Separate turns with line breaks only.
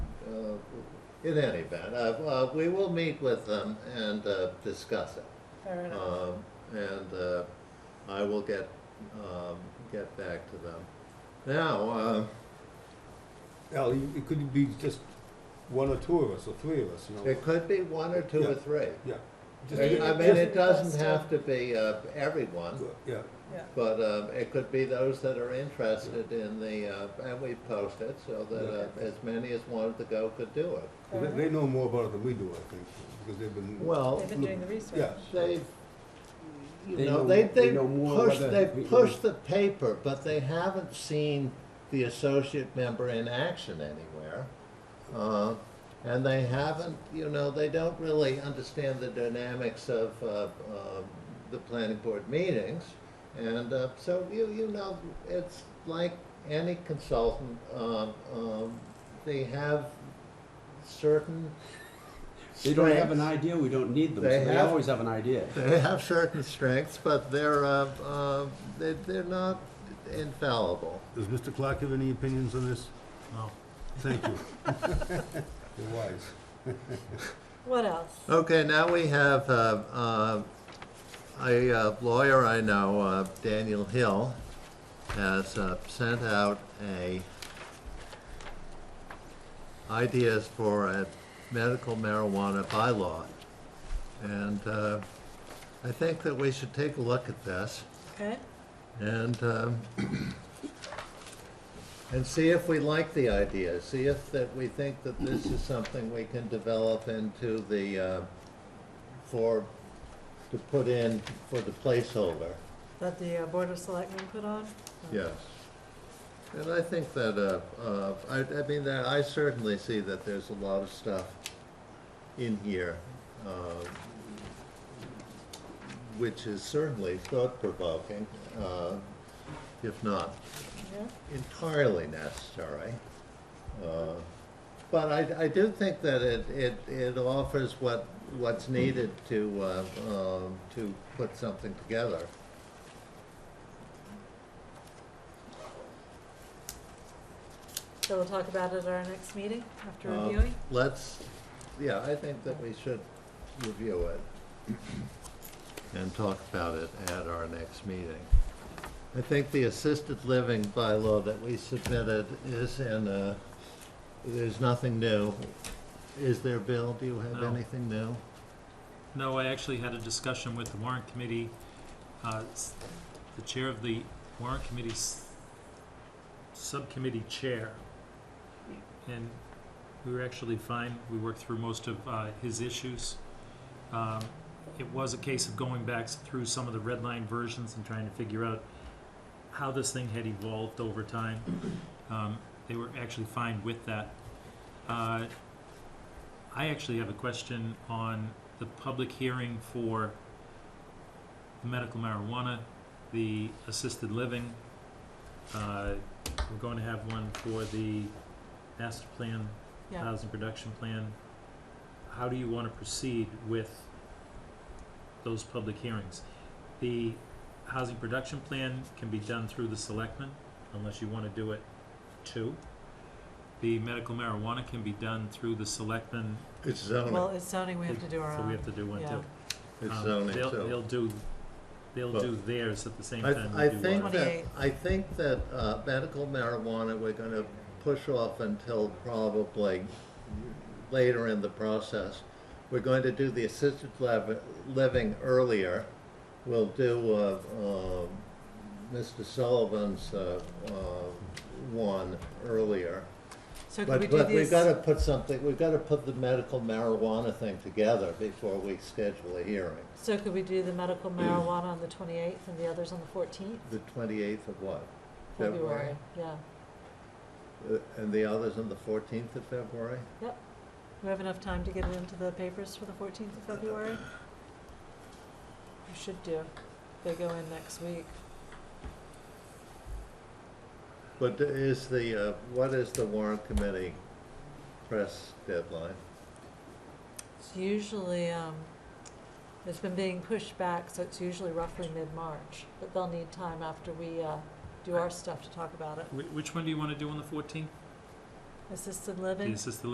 Uh, in any event, uh, uh, we will meet with them and, uh, discuss it.
fair enough.
Um, and, uh, I will get, um, get back to them. Now, uh,
Al, you- it could be just one or two of us, or three of us, you know,
it could be one or two or
Yeah.
three.
yeah. Just-
Maybe
I mean,
just
it doesn't
request, uh,
have to be, uh, everyone.
Yeah,
Yeah,
But um, it could be those that are interested in the, uh, and we post it so that uh,
Okay.
as many as wanted to go could do it.
they,
fair
they
enough.
know more about it than we do, I think, because they've been.
Well,
They've been doing the research.
Yeah.
they, you
They
know,
know-
they,
they
they
know more
push,
whether
they
we-
push the paper, but they haven't seen the associate member in action anywhere. Uh, And they haven't, you know, they don't really understand the dynamics of uh, um, the planning board meetings. And uh, so, you, you know, it's like any consultant, um, um, they have certain
They don't have an
strengths.
idea, we don't need them,
They
so they
have-
always have an idea.
They have certain strengths, but they're, uh, uh, they- they're not infallible.
Does Mr. Clark have any opinions on this? No. Thank you. You're wise.
What else?
Okay, now we have uh, uh, a uh, lawyer I know, uh, Daniel Hill, has uh, sent out a ideas for a medical marijuana bylaw. And uh, I think that we should take a look at this.
Okay,
And, um, and see if we like the idea, see if that we think that this is something we can develop into the, uh, for, to put in for the placeholder.
that the uh, Board of Selectmen put on?
Yes. And I think that, uh, uh, I, I mean, that I certainly see that there's a lot of stuff in here, uh, which is certainly thought-provoking, uh, if not
Yeah,
entirely necessary. Uh, But I, I do think that it, it, it offers what, what's needed to, uh, um, to put something together.
so we'll talk about it at our next meeting after
Um,
reviewing?
Let's, yeah, I think that we should review it and talk about it at our next meeting. I think the assisted living bylaw that we submitted is in, uh, there's nothing new. Is there, Bill? Do you have
No.
anything new?
No, I actually had a discussion with the warrant committee. Uh, s- The chair of the warrant committee's subcommittee chair. And we were actually fine. We worked through most of uh, his issues. Um, It was a case of going back s- through some of the red line versions and trying to figure out how this thing had evolved over time. Um, They were actually fine with that. Uh, I actually have a question on the public hearing for the medical marijuana, the assisted living. Uh, We're going to have one for the master plan,
Yeah.
housing production plan. How do you want to proceed with those public hearings? The housing production plan can be done through the selectmen, unless you want to do it too. The medical marijuana can be done through the selectmen
It's
Well,
zoning,
it's zoning, we have to do our
so we
own.
have to do one
yeah.
too.
it's
Um,
zoning,
They'll,
so.
they'll do, they'll
Well,
do theirs at the same
I,
time
I
we do
think
ours.
that,
28.
I think that, uh, medical marijuana, we're gonna push off until probably later in the process. We're going to do the assisted lev- living earlier. We'll do, uh, um Mr. Sullivan's, uh, uh, one earlier.
So could we
But,
do
but we've
these,
gotta put something, we've gotta put the medical marijuana thing together before we schedule a hearing.
so could we do the medical marijuana on the twenty-eighth and the others on the fourteenth?
The twenty-eighth of what?
February, yeah.
Uh, And the others on the fourteenth of February?
We have enough time to get it into the papers for the fourteenth of February? We should do. They go in next week.
But is the, uh, what is the warrant committee press deadline?
It's usually, um, it's been being pushed back, so it's usually roughly mid-March, but they'll need time after we, uh, do our stuff to talk about it.
Wh- Which one do you wanna do on the fourteenth?
Assisted living?
The assisted